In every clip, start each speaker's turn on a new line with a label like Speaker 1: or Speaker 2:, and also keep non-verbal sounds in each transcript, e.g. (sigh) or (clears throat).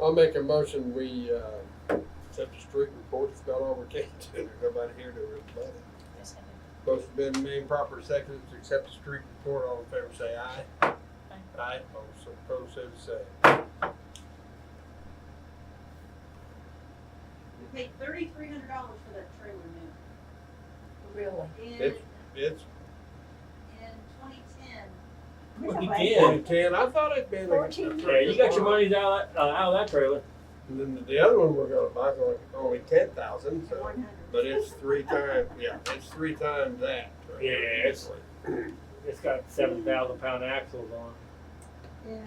Speaker 1: I'll make a motion, we, uh, accept the street report, it's about all we (laughs) can do, there's nobody here to rebut it. Motion been made proper second to accept the street report, all in favor say aye. Aye. Aye, all so opposed say the same.
Speaker 2: We paid thirty-three hundred dollars for that trailer new.
Speaker 3: Really?
Speaker 2: In,
Speaker 1: It's- It's
Speaker 2: in twenty ten,
Speaker 4: Well, he
Speaker 1: twenty
Speaker 4: did.
Speaker 1: ten, I thought it'd been. a-
Speaker 3: Fourteen
Speaker 4: Yeah, you got your money out, uh, out of that trailer.
Speaker 1: And then the other one we're gonna buy's only, only ten thousand, so,
Speaker 2: one
Speaker 1: but
Speaker 2: hundred.
Speaker 1: it's three times, yeah, it's three times that. so-
Speaker 4: Yeah, it's- It's got seven thousand pound axles on.
Speaker 2: Yeah.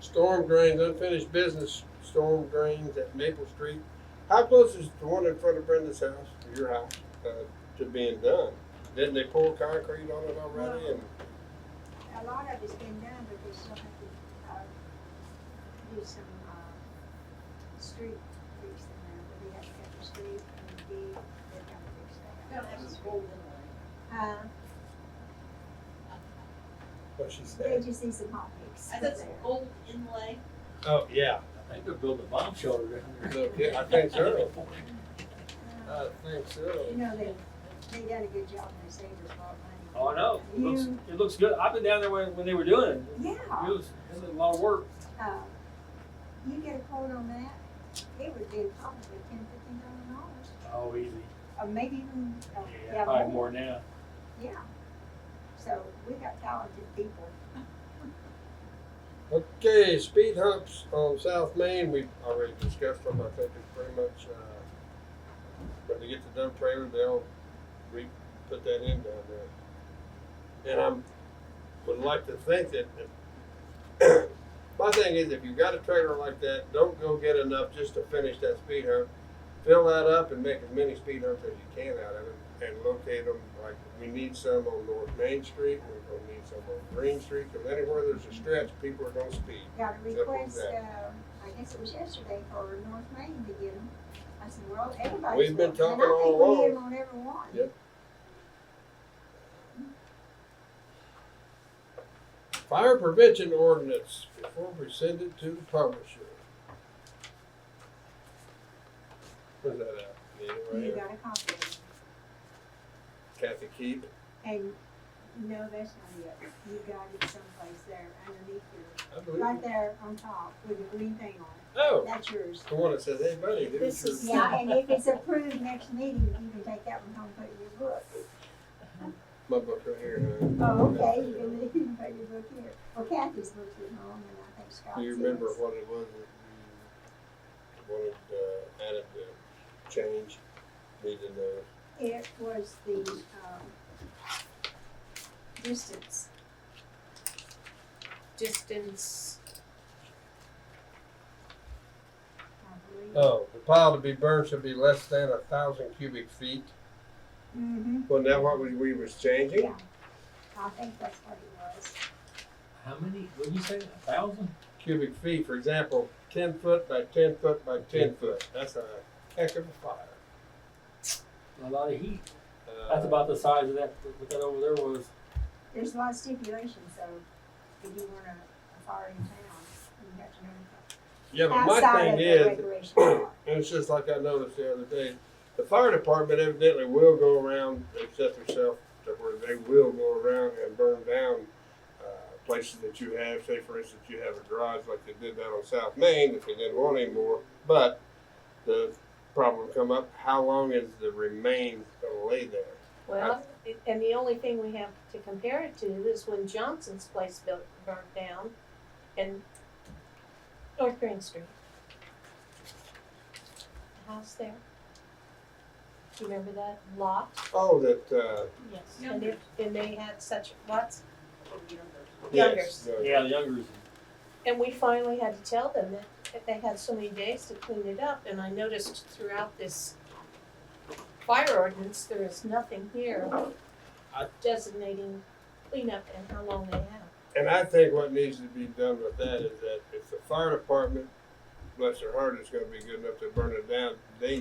Speaker 1: Storm drains, unfinished business, storm drains at Maple Street. How close is the one in front of Brenda's house, your house, uh, to being done? Didn't they pour concrete on it already and?
Speaker 5: A lot of it's been done, but they still have to, uh, do some, uh, street fix in there, but they have to cut the street and dig, they gotta fix
Speaker 2: We
Speaker 5: that.
Speaker 2: don't have this golden one.
Speaker 5: Uh,
Speaker 1: What she
Speaker 5: they just need some hot mix.
Speaker 2: I
Speaker 5: for
Speaker 2: said it's
Speaker 5: there.
Speaker 2: gold inlay.
Speaker 1: Oh, yeah.
Speaker 4: I think they're building a bomb shelter down
Speaker 1: So, yeah, I think so. I think
Speaker 5: Uh, You
Speaker 1: so.
Speaker 5: know, they, they done a good job, and they saved us a lot
Speaker 4: Oh, I
Speaker 5: of money.
Speaker 4: know. It looks, it looks good. I've been down there when, when they were doing it. It
Speaker 5: Yeah,
Speaker 4: was, it was a lot of work.
Speaker 5: uh, you get a quote on that, it would be probably ten, fifteen thousand dollars,
Speaker 4: Oh, easy.
Speaker 5: or maybe even, uh,
Speaker 4: Yeah,
Speaker 5: yeah,
Speaker 4: probably
Speaker 5: more.
Speaker 4: more now.
Speaker 5: Yeah. So we got talented people.
Speaker 1: Okay, speed humps on South Main, we already discussed them, I think it's pretty much, uh, when they get the dump trailer, they'll re-put that in down there. And I'm, would like to think that, if- (coughs) my thing is, if you got a trailer like that, don't go get enough just to finish that speed hump. Fill that up and make as many speed humps as you can out of it and locate them, like, we need some on North Main Street, we're gonna need some on Green Street, cause anywhere there's a stretch, people are gonna speed.
Speaker 5: Got a
Speaker 1: was
Speaker 5: request,
Speaker 1: that.
Speaker 5: um, I guess it was yesterday for North Main to get them. I said, well, everybody's.
Speaker 1: We've been
Speaker 5: wanting 'em."
Speaker 1: talking all
Speaker 5: I think we
Speaker 1: along.
Speaker 5: need 'em on every one.
Speaker 1: Yep. Fire prevention ordinance before we send it to the publisher. Where's that at? Yeah, right
Speaker 5: You
Speaker 1: here.
Speaker 5: got a copy of it.
Speaker 1: Kathy Keep.
Speaker 5: And, no, that's not it. You got it someplace there underneath your,
Speaker 1: I believe.
Speaker 5: right there on top with the green thing on it.
Speaker 1: Oh,
Speaker 5: That's yours.
Speaker 1: the one that says, hey buddy, here's
Speaker 3: This
Speaker 1: your.
Speaker 3: is-
Speaker 5: Yeah, and if it's approved next meeting, you can take that one home, and put it in your book.
Speaker 1: My book right here. huh?
Speaker 5: Oh, okay, you can, (laughs) you can put your book here. Well, Kathy's book's at home and I think Scott's.
Speaker 1: Do you
Speaker 5: is.
Speaker 1: remember what it was that you wanted, uh, added to change? Need to know.
Speaker 5: It was the, um, distance,
Speaker 3: Distance.
Speaker 5: I believe.
Speaker 1: Oh, the pile to be burned should be less than a thousand cubic feet.
Speaker 5: Mm-hmm,
Speaker 1: Well, now what we, we was changing?
Speaker 5: yeah. I think that's what it was.
Speaker 4: How many, what did you say, a thousand?
Speaker 1: cubic feet, for example, ten foot by ten foot by ten foot, that's a heck of a fire.
Speaker 4: A lot of heat.
Speaker 1: Uh,
Speaker 4: That's about the size of that, what that over there was.
Speaker 5: There's a lot of stipulations, so if you want a fire in town, you have to know.
Speaker 1: Yeah, but my
Speaker 5: outside
Speaker 1: thing
Speaker 5: of the
Speaker 1: is, (clears throat)
Speaker 5: regulation
Speaker 1: and
Speaker 5: law.
Speaker 1: it's just like I noticed the other day, the fire department evidently will go around, they set themselves to where they will go around and burn down uh, places that you have, say for instance, you have a garage like they did down on South Main, if they didn't want any more, but the problem come up, how long is the remains gonna lay there?
Speaker 3: Well, and the only thing we have to compare it to is when Johnson's place built, burnt down and North Green Street. The house there. Do you remember that lot?
Speaker 1: Oh, that, uh,
Speaker 3: Yes. And it, and they had such lots,
Speaker 1: yes. the-
Speaker 4: Yeah, the youngers.
Speaker 3: and we finally had to tell them that, that they had so many days to clean it up, and I noticed throughout this fire ordinance, there is nothing here
Speaker 1: I-
Speaker 3: designating cleanup and how long they have.
Speaker 1: And I think what needs to be done with that is that if the fire department, bless their heart, is gonna be good enough to burn it down, they